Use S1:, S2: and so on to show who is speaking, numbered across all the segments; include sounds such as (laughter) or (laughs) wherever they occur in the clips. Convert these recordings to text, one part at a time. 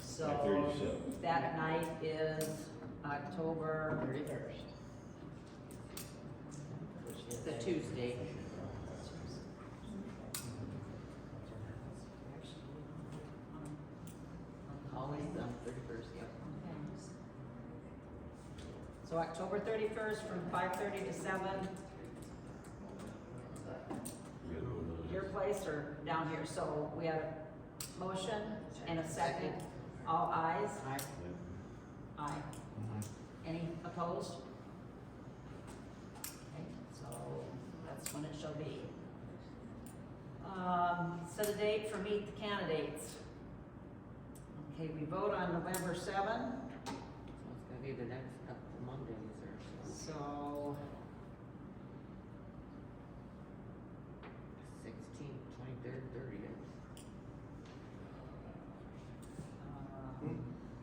S1: So
S2: Thirty-seven.
S1: that night is October
S3: Thirty-first.
S1: the Tuesday. Always the thirty-first, yep. So October thirty-first from five thirty to seven, your place or down here, so we have a motion and a second, all ayes?
S3: Aye.
S1: Aye.
S4: Mm-hmm.
S1: Any opposed? Okay, so that's when it shall be. Um, set a date for meet the candidates. Okay, we vote on November seven,
S3: So it's gonna be the next couple Mondays or so,
S1: so
S3: sixteenth, twenty-third, thirtieth.
S1: um,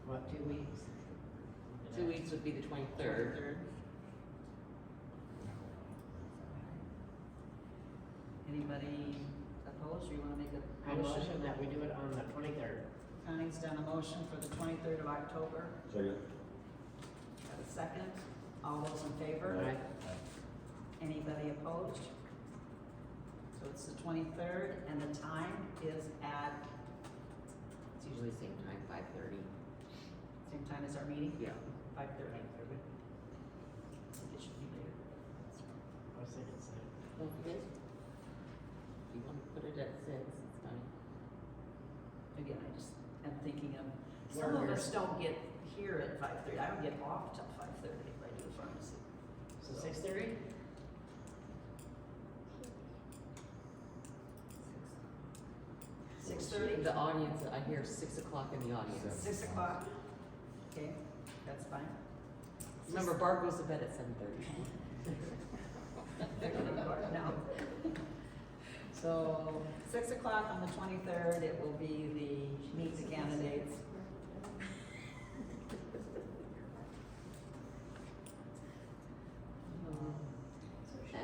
S3: What, two weeks? Two weeks would be the twenty-third.
S1: anybody opposed, or you wanna make a
S4: I
S1: motion?
S4: motion that we do it on the twenty-third.
S1: Cunning's done a motion for the twenty-third of October,
S2: Second.
S1: got a second, all those in favor?
S2: Aye.
S1: Anybody opposed? So it's the twenty-third, and the time is at,
S3: It's usually same time, five-thirty.
S1: same time as our meeting,
S3: Yeah.
S1: five thirty. It should be later.
S4: I was thinking so.
S3: Don't forget, if you wanna put it at six, it's fine.
S1: Again, I just am thinking of, some
S4: Where
S1: of
S4: we're-
S1: us don't get here at five thirty, I don't get off till five thirty if I do pharmacy.
S4: So six-thirty?
S1: Six thirty,
S3: The audience, I hear six o'clock in the audience.
S1: six o'clock, okay, that's fine.
S3: Remember, Barb goes to bed at seven thirty.
S1: They're gonna vote now. So, six o'clock on the twenty-third, it will be the meet the candidates. Uh-huh. Um,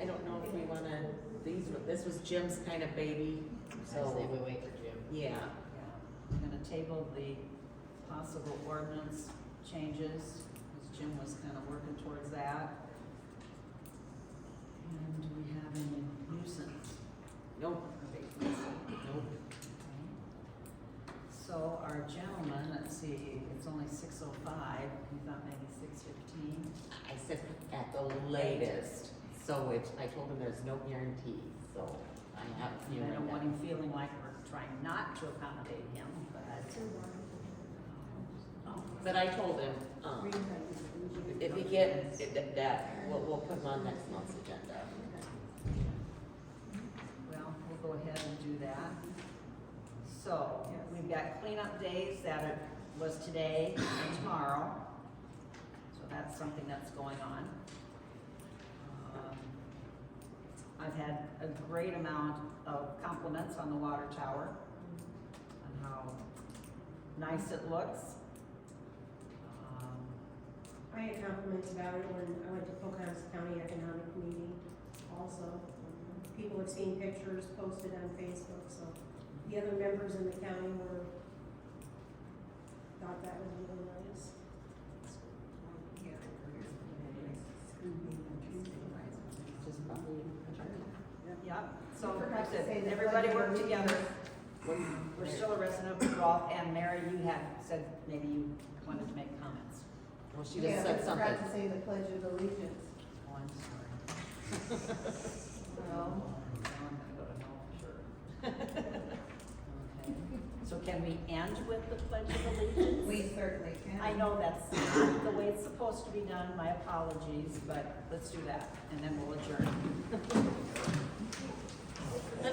S3: I don't know if we wanna, these, were- this was Jim's kind of baby,
S4: Say
S3: so,
S4: we wait for Jim.
S3: yeah.
S1: I'm gonna table the possible ordinance changes, because Jim was kind of working towards that. And do we have any nuisance
S3: Nope,
S1: abatements?
S3: nope.
S1: So our gentleman, let's see, it's only six oh five, we thought maybe six fifteen.
S3: I said at the latest, so it's, I told him there's no guarantee, so I have a
S1: I
S3: feeling
S1: don't want
S3: that.
S1: him feeling like we're trying not to accommodate him, but. um,
S3: But I told him, um, if he gets, that- that, we'll, we'll put him on next month's agenda.
S1: Well, we'll go ahead and do that. So, we've got cleanup days that it was today and tomorrow. So that's something that's going on. Um, I've had a great amount of compliments on the water tower, on how nice it looks. Um,
S5: I had compliments about it when I went to Pocahontas County Economic Meeting also. People have seen pictures posted on Facebook, so the other members in the county were, thought that was really nice.
S3: Which is probably adjourned.
S1: Yep, so,
S5: I forgot
S1: like I
S5: to say
S1: said,
S5: that
S1: everybody
S5: budget
S1: work
S5: meeting
S1: together.
S3: When-
S1: We're still a resident of Ralph, and Mary, you had said maybe you wanted to make comments.
S3: Well, she just said something.
S5: say the pledge of allegiance.
S1: Oh, I'm sorry. Now Oh, I'm gonna go to no, sure. Okay. So can we end with the pledge of allegiance?
S5: We certainly can.
S1: I know that's not the way it's supposed to be done, my apologies, but let's do that, and then we'll adjourn.
S3: (laughs) Dee,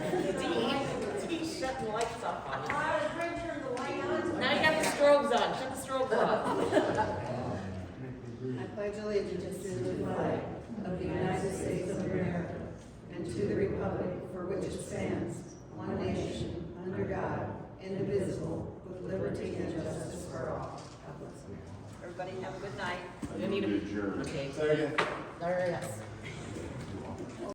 S3: Dee, shut the lights off on us.
S5: I was trying to turn the light on.
S3: Now you got the strobes on, shut the strobes off.
S6: I pledge allegiance to the flag of the United States of America and to the republic for which it stands, one nation, under God, indivisible, with liberty and justice for all. God bless.
S1: Everybody have a good night.
S3: You need a- Okay. There it is.